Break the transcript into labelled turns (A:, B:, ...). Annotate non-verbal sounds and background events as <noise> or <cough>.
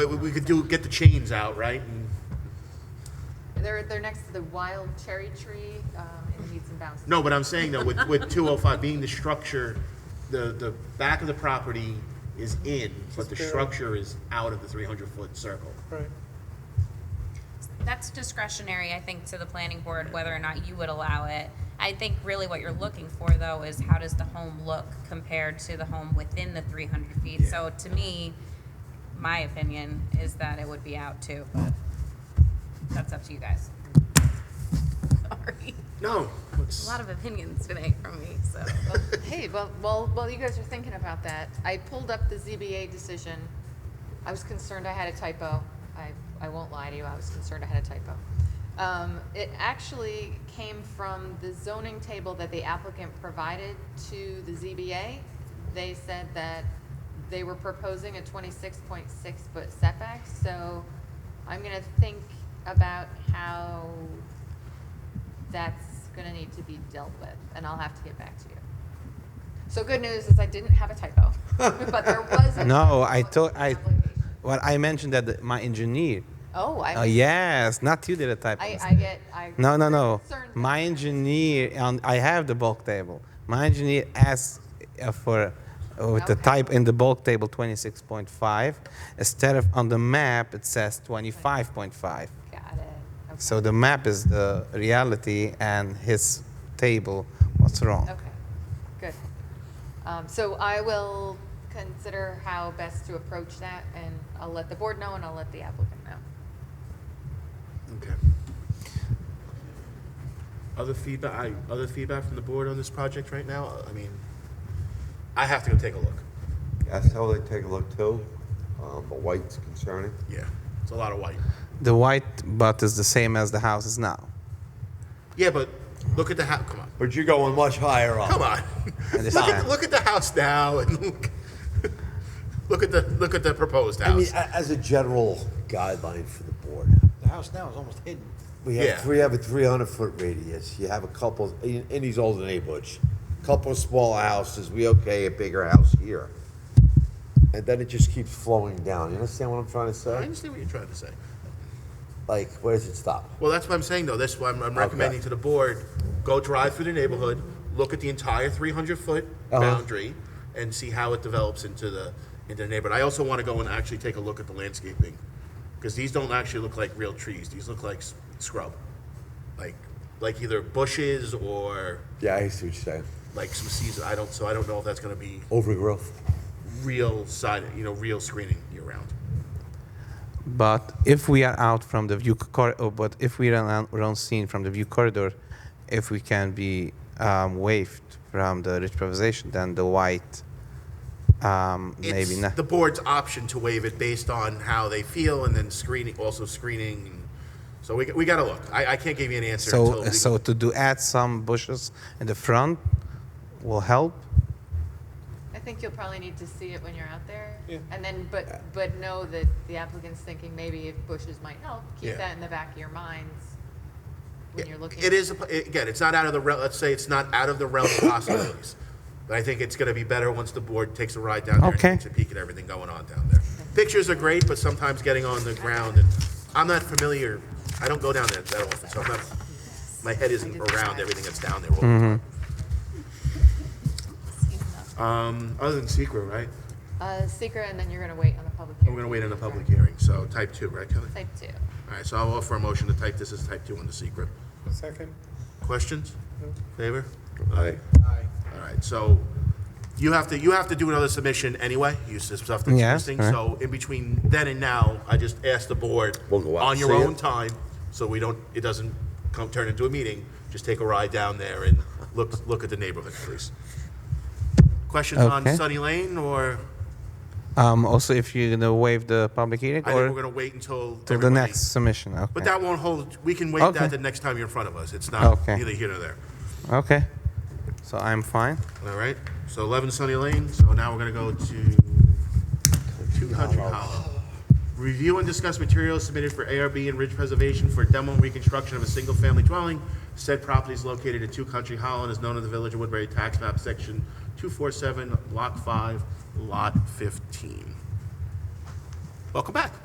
A: But we- we could do, get the chains out, right? And-
B: They're, they're next to the wild cherry tree um, in Meets and Bounds.
A: No, but I'm saying though, with, with two oh five being the structure, the, the back of the property is in, but the
C: Just barely.
A: structure is out of the three hundred foot circle.
C: Right.
D: That's discretionary, I think, to the planning board, whether or not you would allow it. I think really what you're looking for, though, is how does the home look compared to the home within the three hundred feet? So to me, my opinion is that it would be out too, but that's up to you guys. <laughs> Sorry,
A: No,
D: a
A: it's,
D: lot of opinions today from me, so.
B: <laughs> Hey, well, well, well, you guys are thinking about that. I pulled up the ZBA decision. I was concerned I had a typo. I, I won't lie to you, I was concerned I had a typo. Um, it actually came from the zoning table that the applicant provided to the ZBA. They said that they were proposing a twenty-six point six foot setback, so I'm gonna think about how that's gonna need to be dealt with, and I'll have to get back to you. So good news is I didn't have a
E: <laughs>
B: typo, but there was. a typo
E: No, I
B: in the
E: told I.
B: application.
E: Well, I mentioned that the, my engineer.
B: Oh, I.
E: Oh yes, not you did a type.
B: I, I get. I.
E: no, no, no.
B: concerned.
E: My engineer. On, I have the bulk table. My engineer asked uh, for uh, with the
B: Okay.
E: type in the bulk table 26.5 instead of on the map it says 25.5.
B: Got it.
E: So the map is the reality, and his table was wrong.
B: Okay, good. Um, so I will consider how best to approach that, and I'll let the board know, and I'll let the applicant know.
A: okay. Other feedback, I, other feedback from the board on this project right now? I mean, I have to go take a look.
F: I saw they take a look too, um, but white's concerning.
A: Yeah. It's a lot of white.
E: The white butt is the same as the house is now,
A: Yeah, but look at the house, come on,
F: But you're going much higher up.
A: come on. Look at,
E: understand.
A: look at the house now and look, look at the, look at the proposed
F: I mean,
A: house.
F: a- as a general guideline for the board,
C: The house now is almost hidden.
F: we
A: Yeah.
F: have three, have a three hundred foot radius. You have a couple in, in these older neighborhoods, couple of smaller houses. We okay a bigger house here, and then it just keeps flowing down. You understand what I'm trying to
A: I
F: say?
A: understand what you're trying to say.
F: Like, where does it stop?
A: Well, that's what I'm saying, though. That's why I'm, I'm recommending to the board, go drive through the neighborhood, look at the entire three hundred foot
F: Uh-huh.
A: boundary, and see how it develops into the, into the neighborhood. I also want to go and actually take a look at the landscaping, because these don't actually look like real trees. These look like s- scrub. Like, like either bushes or
F: Yeah, I see what you're saying.
A: like some season, I don't, so I don't know if that's gonna be
F: Overgrowth.
A: real side, you know, real screening year round.
E: but if we are out from the view corridor, but if we are on- we're on scene from the view corridor, if we can be um, waived from the improvisation, then the white um, maybe
A: it's
E: not.
A: the board's option to waive it based on how they feel and then screening, also screening. and- So we, we gotta look. I, I can't give you an answer until.
E: So,
A: we-
E: so to do add some bushes in the front will help.
B: I think you'll probably need to see it when you're out there.
C: Yeah.
B: And then, but, but know that the applicant's thinking maybe if bushes might help,
A: Yeah.
B: keep that in the back of your minds when you're looking.
A: It is, a po- again, it's not out of the, re- let's say it's not out of the realm of possibilities. But I think it's gonna be better once the board takes a ride down there
E: Okay.
A: and takes a peek at everything going on down there. Pictures are great, but sometimes getting on the ground and, I'm not familiar, I don't go down there that often, so I'm not, my head isn't around everything that's down there all the
E: Mm-hmm.
A: time. Um, other than secret, right?
B: Uh, secret, and then you're gonna wait on the public hearing.
A: We're gonna wait on the public hearing, so type two, right, Kelly?
B: Type two.
A: All right, so I'll offer a motion to type this as type two on the secret.
C: Second.
A: Questions? Favor?
F: Aye.
C: Aye.
A: All right, so you have to, you have to do another submission anyway, use this stuff that's
E: Yeah,
A: missing.
E: alright.
A: So in between then and now, I just ask the board.
F: We'll go out
A: On
F: and
A: your
F: see it.
A: own time, so we don't, it doesn't come, turn into a meeting. Just take a ride down there and look, look at the neighborhood, please. Questions on
E: Okay.
A: Sunny Lane, or
E: Um, also, if you're gonna waive the public hearing
A: I think we're
E: or
A: gonna wait until.
E: to the
A: everybody-
E: next submission. Okay.
A: But that won't hold, we can wait
E: Okay.
A: that the next time you're in front of us. It's not
E: Okay.
A: either here nor there.
E: okay. So I'm fine.
A: All right, so 11 Sunny Lane, so now we're gonna go to 200 Hollow. Review and discuss materials submitted for ARB and ridge preservation for demo and reconstruction of a single-family dwelling. Said property is located at Two Country Hollow and is known in the Village of Woodbury Tax Map, Section 247, Lot 5, Lot 15. Welcome back.